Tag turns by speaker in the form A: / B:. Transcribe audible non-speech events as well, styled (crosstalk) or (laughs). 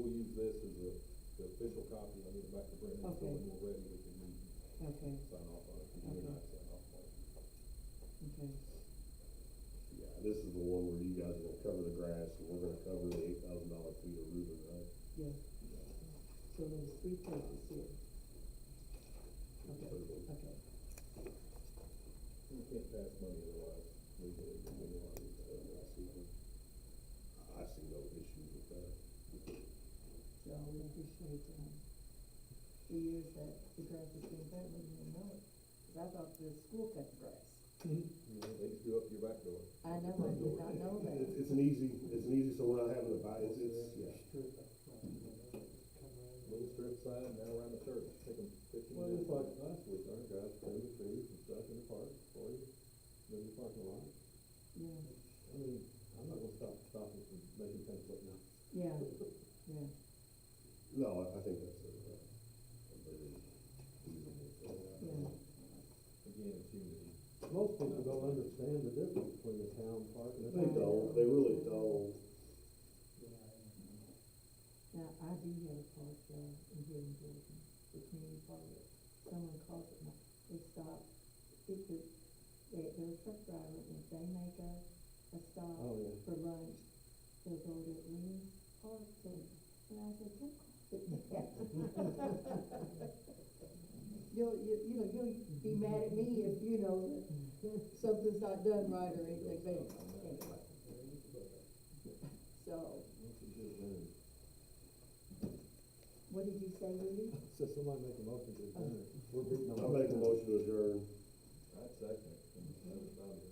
A: use this as the, the official copy, I'll get it back to Brendan, so
B: Okay.
A: when we're ready, we can meet and
B: Okay,
A: sign off on it, because you're not sign off on it.
B: okay,
C: Yeah, this is the one where you guys are gonna cover the grass, and we're gonna cover the eight thousand dollar fee of Ruben, right?
B: yeah. So there's three places here. Okay, okay,
A: You can't pass money otherwise, legally, you can do it.
C: Uh, I see, no- I see no issues with that.
B: so we appreciate, um, the years that the grass has been cut, we didn't even know it. 'Cause I thought the school cut the grass.
A: You know, they just go up to your back door.
B: I know, I did not know that.
C: It's, it's an easy, it's an easy, so we're not having to buy, it's, it's, yeah.
A: Little strip sign down around the church, take them fifteen
D: Well,
A: minutes.
D: it's like last week, our guys trimmed the trees and stuff in the park for you, in the parking lot.
B: Yeah,
D: I mean, I'm not gonna stop, stop them from making things look nice.
B: yeah, yeah,
C: No, I, I think that's a, uh, a very reasonable thing.
B: yeah.
A: Again, it's unity.
D: Most people don't understand the difference between the town park and the.
C: They don't, they really don't.
B: Now, I do have a park there in here in Jordan, the community park. Someone calls it, my- they stop, it's a, they, they're a truck driver, and if they make a, a stop
D: Oh, yeah.
B: for lunch, they'll go to Lee's Park, and, and I said, don't call it that. (laughs) You'll, you, you know, you'll be mad at me if, you know, something's not done right or anything, but anyway. So, what did you say, Lee?
D: So somebody make a Oh. motion to adjourn, we're beating on.
C: I make a motion to adjourn.
A: I'd second it. and that was about it.
C: Uh,